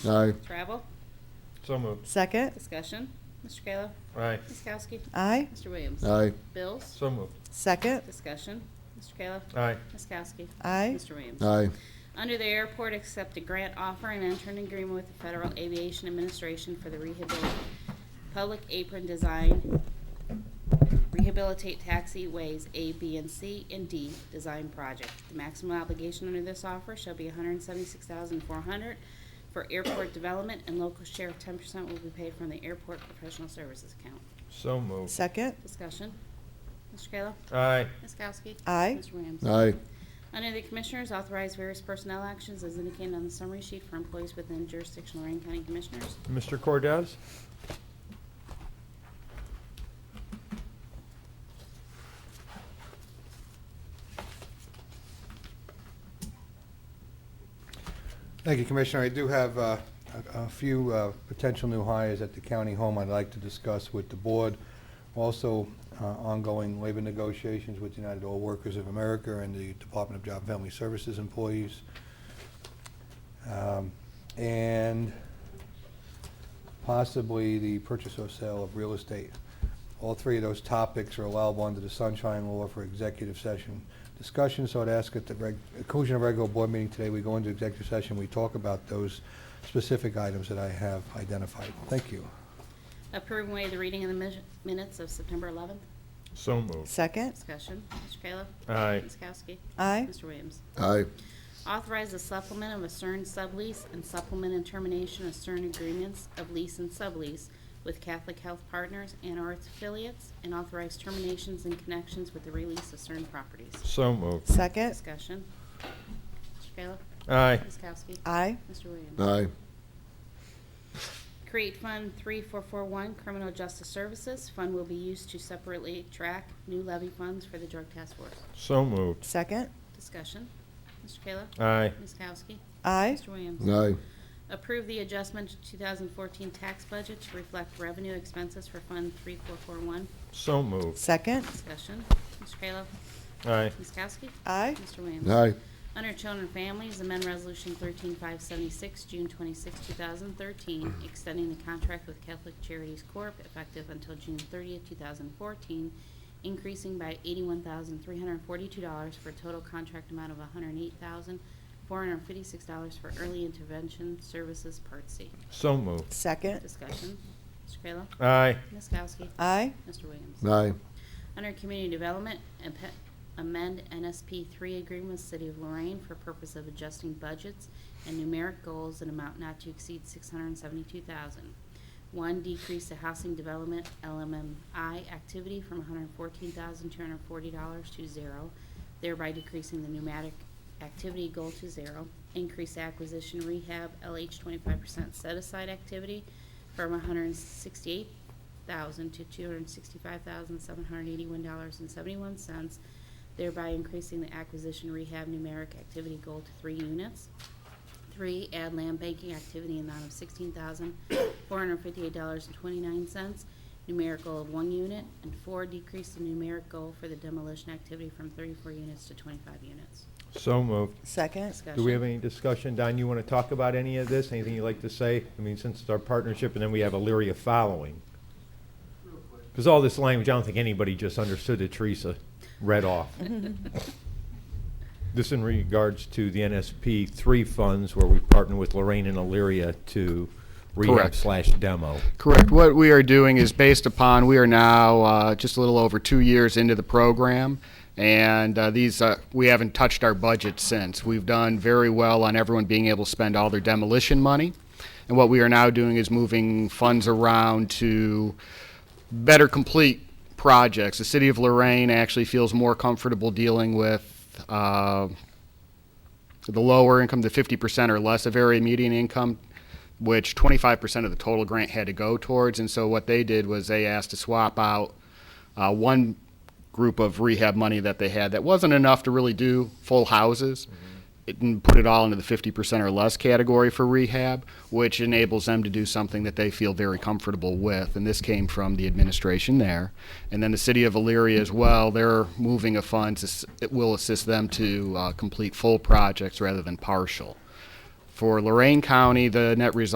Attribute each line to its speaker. Speaker 1: Jones?
Speaker 2: Aye.
Speaker 1: Travel?
Speaker 3: So moved.
Speaker 4: Second.
Speaker 1: Discussion. Mr. Kayla?
Speaker 3: Aye.
Speaker 1: Ms. Kowski?
Speaker 4: Aye.
Speaker 1: Mr. Williams?
Speaker 2: Aye.
Speaker 1: Bills?
Speaker 3: So moved.
Speaker 4: Second.
Speaker 1: Discussion. Mr. Kayla?
Speaker 3: Aye.
Speaker 1: Ms. Kowski?
Speaker 4: Aye.
Speaker 1: Mr. Williams?
Speaker 2: Aye.
Speaker 1: Under the airport, accept a grant offer and enter an agreement with the Federal Aviation Administration for the rehabilit- public apron design, rehabilitate taxiways A, B, and C, and D design project. The maximum obligation under this offer shall be 176400 for airport development, and local share of 10% will be paid from the airport professional services account.
Speaker 3: So moved.
Speaker 4: Second.
Speaker 1: Discussion. Mr. Kayla?
Speaker 3: Aye.
Speaker 1: Ms. Kowski?
Speaker 4: Aye.
Speaker 1: Mr. Williams?
Speaker 2: Aye.
Speaker 1: Under the Commissioners, authorize various personnel actions as indicated on the summary sheet for employees within jurisdiction of Lorraine County Commissioners.
Speaker 3: Mr. Cordez?
Speaker 5: Thank you, Commissioner. I do have uh, a a few uh, potential new hires at the county home I'd like to discuss with the board. Also, uh, ongoing labor negotiations with United All Workers of America and the Department of Job and Family Services employees. Um, And possibly the purchase or sale of real estate. All three of those topics are allowable under the Sunshine Law for executive session discussion, so I'd ask at the reg- conclusion of regular board meeting today, we go into executive session, we talk about those specific items that I have identified. Thank you.
Speaker 1: Approve and waive the reading of the mis- minutes of September 11th.
Speaker 3: So moved.
Speaker 4: Second.
Speaker 1: Discussion. Mr. Kayla?
Speaker 3: Aye.
Speaker 1: Ms. Kowski?
Speaker 4: Aye.
Speaker 1: Mr. Williams?
Speaker 2: Aye.
Speaker 1: Authorize the supplement of a CERN sublease and supplement and termination of CERN agreements of lease and sublease with Catholic Health Partners and or its affiliates, and authorize terminations and connections with the release of CERN properties.
Speaker 3: So moved.
Speaker 4: Second.
Speaker 1: Discussion. Mr. Kayla?
Speaker 3: Aye.
Speaker 1: Ms. Kowski?
Speaker 4: Aye.
Speaker 1: Mr. Williams?
Speaker 2: Aye.
Speaker 1: Create Fund 3441 Criminal Justice Services. Fund will be used to separately track new levy funds for the Drug Task Force.
Speaker 3: So moved.
Speaker 4: Second.
Speaker 1: Discussion. Mr. Kayla?
Speaker 3: Aye.
Speaker 1: Ms. Kowski?
Speaker 4: Aye.
Speaker 1: Mr. Williams?
Speaker 2: Aye.
Speaker 1: Approve the adjustment to 2014 tax budget to reflect revenue expenses for Fund 3441.
Speaker 3: So moved.
Speaker 4: Second.
Speaker 1: Discussion. Mr. Kayla?
Speaker 3: Aye.
Speaker 1: Ms. Kowski?
Speaker 4: Aye.
Speaker 1: Mr. Williams?
Speaker 2: Aye.
Speaker 1: Under Children and Families, amend Resolution 13576, June 26, 2013, extending the contract with Catholic Charities Corp. effective until June 30, 2014, increasing by $81,342 for a total contract amount of $108,456 for early intervention services, Part C.
Speaker 3: So moved.
Speaker 4: Second.
Speaker 1: Discussion. Mr. Kayla?
Speaker 3: Aye.
Speaker 1: Ms. Kowski?
Speaker 4: Aye.
Speaker 1: Mr. Williams?
Speaker 2: Aye.
Speaker 1: Under Community Development, ampe- amend NSP 3 agreement with City of Lorraine for purpose of adjusting budgets and numeric goals in amount not to exceed 672000 One, decrease the housing development LMMI activity from $114,240 to zero, thereby decreasing the pneumatic activity goal to zero. Increase acquisition rehab LH 25% set-aside activity from 168 thousand to two hundred sixty-five thousand seven hundred eighty-one dollars and seventy-one cents, thereby increasing the acquisition rehab numeric activity goal to three units. Three, add land banking activity in the amount of sixteen thousand four hundred fifty-eight dollars and twenty-nine cents, numeric goal of one unit. And four, decrease the numeric goal for the demolition activity from thirty-four units to twenty-five units.
Speaker 3: So moved.
Speaker 4: Second.
Speaker 1: Discussion.
Speaker 3: Do we have any discussion? Don, you want to talk about any of this? Anything you'd like to say? I mean, since it's our partnership and then we have Elyria following. Because all this language, I don't think anybody just understood that Teresa read off. This in regards to the NSP three funds where we partner with Lorraine and Elyria to rehab
Speaker 6: Correct.
Speaker 3: slash demo.
Speaker 6: Correct. What we are doing is based upon, we are now uh, just a little over two years into the program, and uh, these, uh, we haven't touched our budget since. We've done very well on everyone being able to spend all their demolition money, and what we are now doing is moving funds around to better complete projects. The city of Lorraine actually feels more comfortable dealing with uh, the lower income, the 50% or less of area median income, which 25% of the total grant had to go towards. And so what they did was they asked to swap out uh, one group of rehab money that they had that wasn't enough to really do full houses. It, and put it all into the 50% or less category for rehab, which enables them to do something that they feel very comfortable with. And this came from the administration there. And then the city of Elyria as well, they're moving a fund to, s- it will assist them to uh, complete full projects rather than partial. For Lorraine County, the net result.